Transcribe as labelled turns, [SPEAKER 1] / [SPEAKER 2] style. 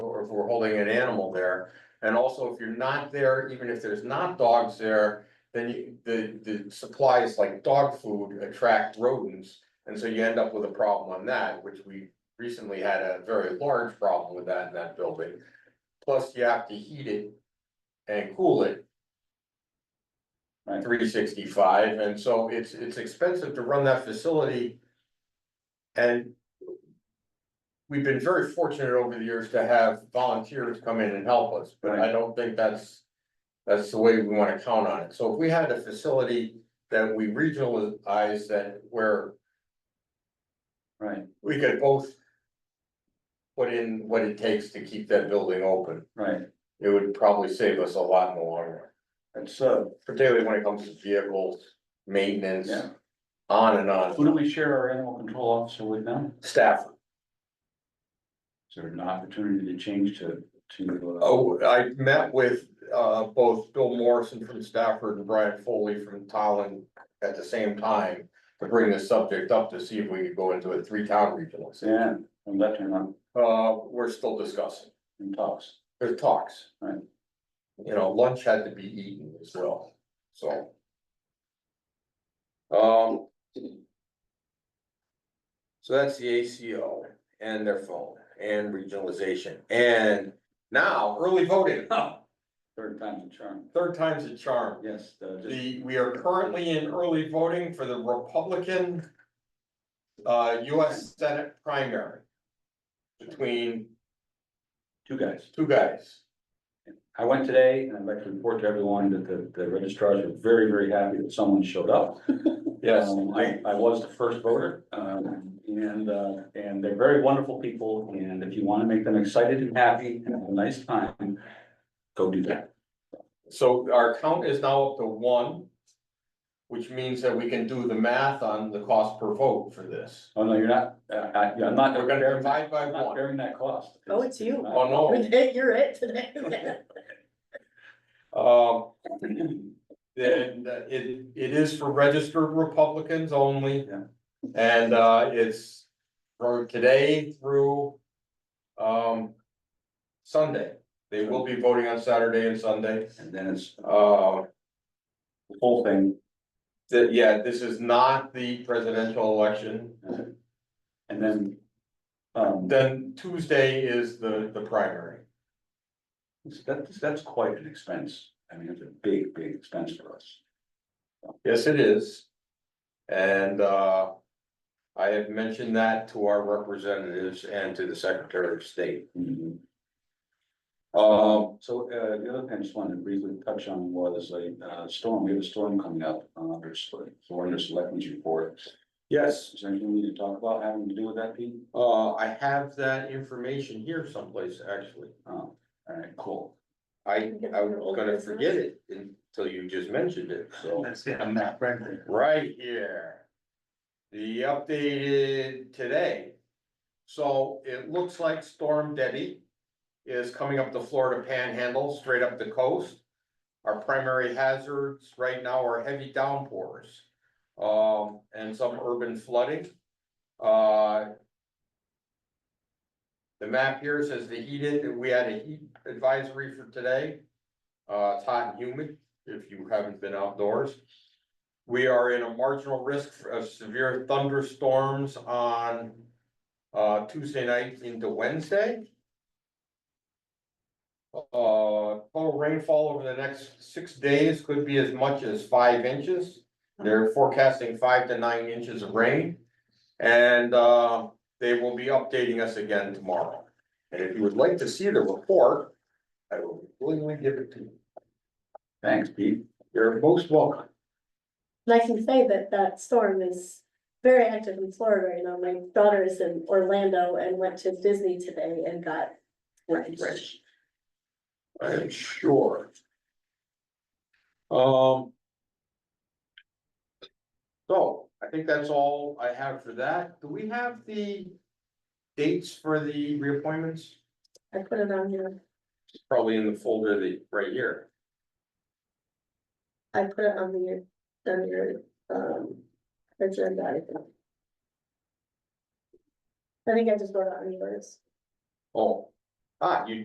[SPEAKER 1] or if we're holding an animal there. And also, if you're not there, even if there's not dogs there, then you, the, the supplies like dog food attract rodents. And so you end up with a problem on that, which we recently had a very large problem with that in that building. Plus, you have to heat it and cool it.
[SPEAKER 2] Right.
[SPEAKER 1] Three sixty-five, and so it's, it's expensive to run that facility. And. We've been very fortunate over the years to have volunteers come in and help us, but I don't think that's. That's the way we wanna count on it, so if we had a facility that we regionalize that where
[SPEAKER 2] Right,
[SPEAKER 1] we could both. Put in what it takes to keep that building open,
[SPEAKER 2] right,
[SPEAKER 1] it would probably save us a lot in the long run,
[SPEAKER 2] and so,
[SPEAKER 1] particularly when it comes to vehicles, maintenance,
[SPEAKER 2] yeah,
[SPEAKER 1] on and on,
[SPEAKER 2] who do we share our animal control officer with now?
[SPEAKER 1] staff.
[SPEAKER 2] Is there an opportunity to change to, to? uh,
[SPEAKER 1] Oh, I met with uh both Bill Morrison from Stafford and Brian Foley from Tolland at the same time. To bring this subject up to see if we could go into a three-town regional,
[SPEAKER 2] Yeah, I'm left and I'm
[SPEAKER 1] uh, we're still discussing,
[SPEAKER 2] in talks,
[SPEAKER 1] there's talks.
[SPEAKER 2] Right.
[SPEAKER 1] You know, lunch had to be eaten as well, so. Um. So that's the ACO and their phone and regionalization and now early voting,
[SPEAKER 2] third time's a charm,
[SPEAKER 1] third time's a charm.
[SPEAKER 2] yes, uh, just,
[SPEAKER 1] The, we are currently in early voting for the Republican. Uh, US Senate primary. Between
[SPEAKER 2] two guys.
[SPEAKER 1] two guys.
[SPEAKER 2] I went today and I'd like to report to everyone that the, the registrars were very, very happy that someone showed up. Um, I, I was the first voter, um, and, uh, and they're very wonderful people, and if you wanna make them excited and happy and have a nice time, go do that.
[SPEAKER 1] So our count is now up to one. Which means that we can do the math on the cost per vote for this.
[SPEAKER 2] Oh, no, you're not, uh, I, yeah, I'm not.
[SPEAKER 1] We're gonna
[SPEAKER 2] bearing-
[SPEAKER 1] divide by
[SPEAKER 2] I'm not
[SPEAKER 1] one.
[SPEAKER 2] bearing that cost. Uh,
[SPEAKER 3] Oh, it's you.
[SPEAKER 1] Oh, no,
[SPEAKER 3] You're it today.
[SPEAKER 1] um, then uh, it, it is for registered Republicans only.
[SPEAKER 2] Yeah.
[SPEAKER 1] And, uh, it's from today through, um, Sunday. They will be voting on Saturday and Sunday.
[SPEAKER 2] And then it's
[SPEAKER 1] Uh,
[SPEAKER 2] the whole thing,
[SPEAKER 1] that, yeah, this is not the presidential election.
[SPEAKER 2] and then, um,
[SPEAKER 1] Then Tuesday is the, the primary.
[SPEAKER 2] that's, that's quite an expense. I mean, it's a big, big expense for us.
[SPEAKER 1] Yes, it is. And uh. I have mentioned that to our representatives and to the Secretary of State. Um,
[SPEAKER 2] Mm-hmm. So uh, the other thing I just wanted to briefly touch on was a uh, storm, we have a storm coming up, uh, there's, for under selectmen's report.
[SPEAKER 1] yes,
[SPEAKER 2] Is there anything we need to talk about having to do with that, Pete?
[SPEAKER 1] uh, I have that information here someplace, actually.
[SPEAKER 2] Oh, all right, cool.
[SPEAKER 1] I, I was gonna forget it until you just mentioned it, so.
[SPEAKER 2] That's it, I'm not right there.
[SPEAKER 1] Right here. The updated today. So it looks like Storm Debbie is coming up the Florida Panhandle, straight up the coast. Our primary hazards right now are heavy downpours, um, and some urban flooding. Uh, The map here says the heated, we had a heat advisory for today. Uh, it's hot and humid, if you haven't been outdoors. We are in a marginal risk of severe thunderstorms on uh Tuesday night into Wednesday. Uh, total rainfall over the next six days could be as much as five inches. They're forecasting five to nine inches of rain. And uh, they will be updating us again tomorrow. And if you would like to see the report, I will willingly give it to you.
[SPEAKER 2] Thanks, Pete.
[SPEAKER 1] You're most welcome.
[SPEAKER 3] And I can say that that storm is very active in Florida right now. My daughter is in Orlando and went to Disney today and got drenched.
[SPEAKER 1] I'm sure. Um. So I think that's all I have for that. Do we have the dates for the reappointments?
[SPEAKER 3] I put it on your,
[SPEAKER 1] It's Probably in the folder that, right here.
[SPEAKER 3] I put it on the, on your, um, agenda. I think. I think I just wrote it on yours.
[SPEAKER 1] Oh, ah, you